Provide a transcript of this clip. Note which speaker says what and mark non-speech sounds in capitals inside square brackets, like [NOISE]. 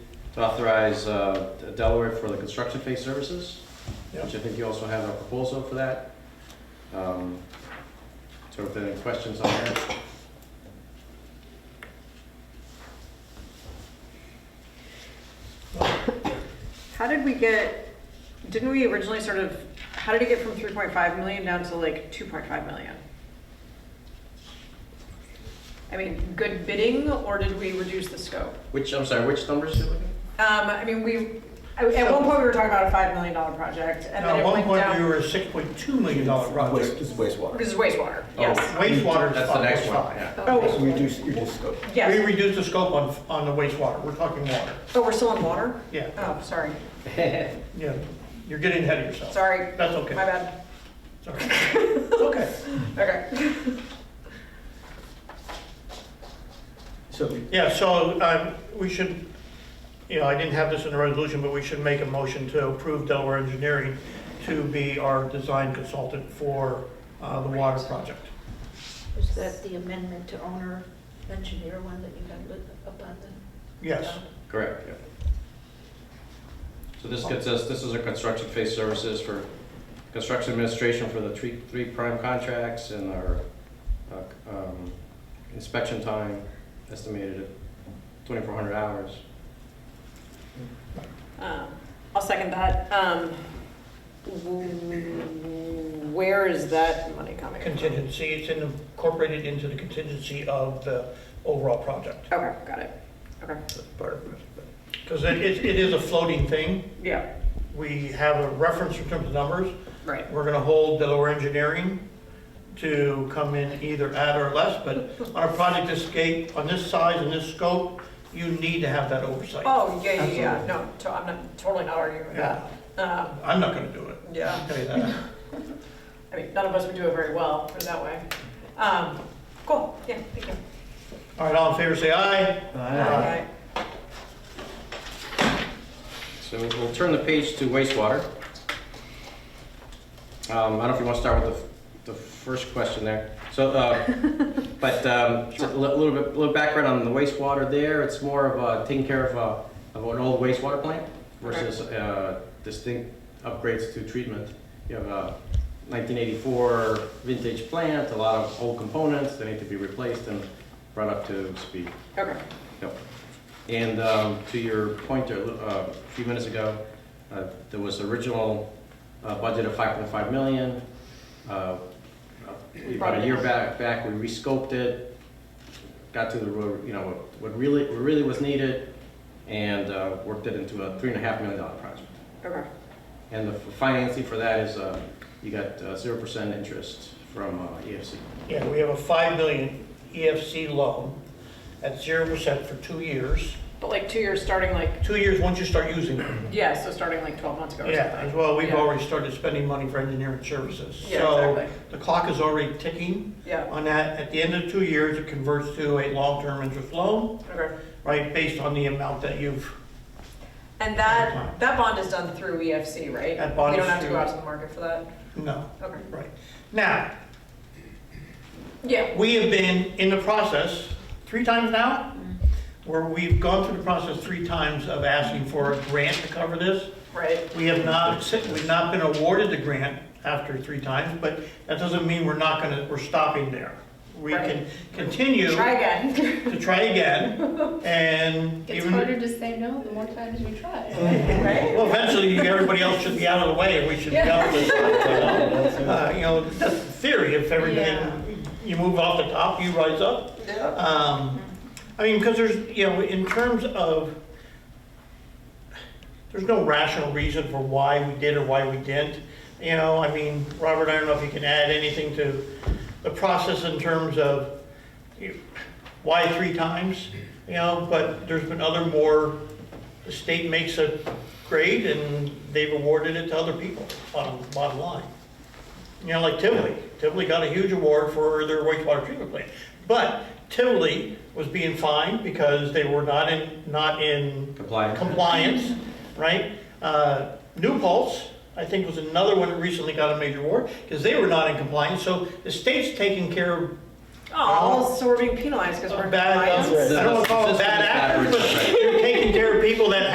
Speaker 1: to authorize uh, Delaware for the construction phase services,
Speaker 2: Yep.
Speaker 1: which I think you also have a proposal for that. Um, So if there are any questions on that,
Speaker 3: How did we get, didn't we originally sort of, how did it get from 3.5 million down to like 2.5 million? I mean, good bidding, or did we reduce the scope?
Speaker 1: which, I'm sorry, which numbers did you look at?
Speaker 3: Um, I mean, we, at one point, we were talking about a $5 million project, and
Speaker 2: Now,
Speaker 3: then
Speaker 2: at
Speaker 3: it
Speaker 2: one
Speaker 3: went
Speaker 2: point, we
Speaker 3: down.
Speaker 2: were a six point two million dollar
Speaker 4: Waste,
Speaker 2: project.
Speaker 4: this is wastewater.
Speaker 3: This is wastewater,
Speaker 1: Oh.
Speaker 3: yes.
Speaker 2: Wastewater is
Speaker 1: That's the
Speaker 2: five
Speaker 1: next
Speaker 2: point
Speaker 1: one,
Speaker 2: five.
Speaker 1: yeah.
Speaker 3: Oh,
Speaker 4: We reduce, you reduce scope.
Speaker 2: We
Speaker 3: yes.
Speaker 2: reduced the scope on, on the wastewater, we're talking water,
Speaker 3: Oh, we're still on water?
Speaker 2: yeah,
Speaker 3: Oh, sorry,
Speaker 2: yeah, you're getting ahead of yourself.
Speaker 3: sorry,
Speaker 2: That's
Speaker 3: my
Speaker 2: okay,
Speaker 3: bad.
Speaker 2: sorry. It's okay,
Speaker 3: Okay.
Speaker 4: So we-
Speaker 2: yeah, so, um, we should, you know, I didn't have this in the resolution, but we should make a motion to approve Delaware Engineering to be our design consultant for, uh, the water project.
Speaker 5: Is that the amendment to owner engineer one that you got lit up on the?
Speaker 2: Yes,
Speaker 1: Correct, yeah. So this gets us, this is a construction phase services for construction administration for the three, three prime contracts and our uh, um, inspection time estimated at 2,400 hours.
Speaker 3: Um, I'll second that. Um, w- Where is that money coming from?
Speaker 2: contingency, it's incorporated into the contingency of the overall project.
Speaker 3: Okay, got it. Okay,
Speaker 4: that's part of it. but-
Speaker 2: Because it, it it is a floating thing.
Speaker 3: yeah,
Speaker 2: We have a reference in terms of numbers.
Speaker 3: right.
Speaker 2: We're gonna hold Delaware Engineering to come in either at or less, but on a project this scale, on this size and this scope, you need to have that oversight.
Speaker 3: Oh, yeah, yeah, yeah, no, to- I'm not, totally not arguing with
Speaker 2: Yeah.
Speaker 3: that. Um,
Speaker 2: I'm not gonna do it.
Speaker 3: Yeah,
Speaker 2: I'll tell you that.
Speaker 3: I mean, none of us would do it very well, put it that way. Um, Cool, yeah, thank you.
Speaker 2: All right, all in favor, say aye.
Speaker 4: uh,
Speaker 3: Alright.
Speaker 1: So we'll turn the page to wastewater. Um, I don't know if you want to start with the, the first question there. So, uh, but um, a li- little bit, little background on the wastewater there. It's more of a taking care of, a, of an old wastewater plant versus uh, distinct upgrades to treatment. You have a 1984 vintage plant, a lot of old components that need to be replaced and brought up to speed.
Speaker 3: Okay,
Speaker 1: Yep. And um, to your point there, uh, a few minutes ago, uh, there was original uh, budget of 5.5 million. Uh, About a year back, back, we rescoped it, got to the, road, you know, what- what really, what really was needed, and uh, worked it into a three and a half million dollar project.
Speaker 3: okay,
Speaker 1: And the financing for that is, uh, you got zero percent interest from uh, EFC.
Speaker 2: Yeah, we have a five million EFC loan at zero percent for two years.
Speaker 3: but like two years, starting like,
Speaker 2: Two years once you start using it.
Speaker 3: yeah, so starting like 12 months ago or
Speaker 2: Mm-hmm. Yeah, as
Speaker 3: something.
Speaker 2: well, we've
Speaker 3: Yeah.
Speaker 2: already started spending money for engineering services.
Speaker 3: Yeah,
Speaker 2: So
Speaker 3: exactly.
Speaker 2: the clock is already ticking.
Speaker 3: Yeah,
Speaker 2: On that, at the end of two years, it converts to a long-term interest loan,
Speaker 3: okay.
Speaker 2: right, based on the amount that you've,
Speaker 3: And that, that bond is done through EFC, right?
Speaker 2: That bond
Speaker 3: We don't
Speaker 2: is
Speaker 3: have to go
Speaker 2: through-
Speaker 3: out to the market for that?
Speaker 2: no,
Speaker 3: Okay.
Speaker 2: right. Now,
Speaker 3: Yeah,
Speaker 2: we have been in the process, three times now, where we've gone through the process three times of asking for a grant to cover this.
Speaker 3: right.
Speaker 2: We have not, we've not been awarded the grant after three times, but that doesn't mean we're not gonna, we're stopping there. We can
Speaker 3: Right.
Speaker 2: continue
Speaker 3: Try again.
Speaker 2: to try again, and
Speaker 6: It's
Speaker 2: even.
Speaker 6: harder to say no the more times you try.
Speaker 3: [LAUGHS] Right? [LAUGHS]
Speaker 2: Well, eventually, everybody else should be out of the way, and we should be out of this. Uh, You know, that's the theory, if everything, you move off the top, you rise up.
Speaker 3: Yeah.
Speaker 2: Um, I mean, because there's, you know, in terms of, there's no rational reason for why we did or why we didn't. You know, I mean, Robert, I don't know if you can add anything to the process in terms of you- why three times, you know, but there's been other more, the state makes a grade and they've awarded it to other people, bottom, bottom line. You know, like Tivoli, Tivoli got a huge award for their wastewater treatment plant. But Tivoli was being fined because they were not in, not in
Speaker 1: Compliant?
Speaker 2: compliance, right? Uh, New Pulse, I think, was another one that recently got a major award because they were not in compliance. So the state's taking care of
Speaker 3: Oh, so we're being penalized because we're
Speaker 2: bad,
Speaker 3: compliant?
Speaker 2: I don't want to call it bad actors, but they're taking care of people that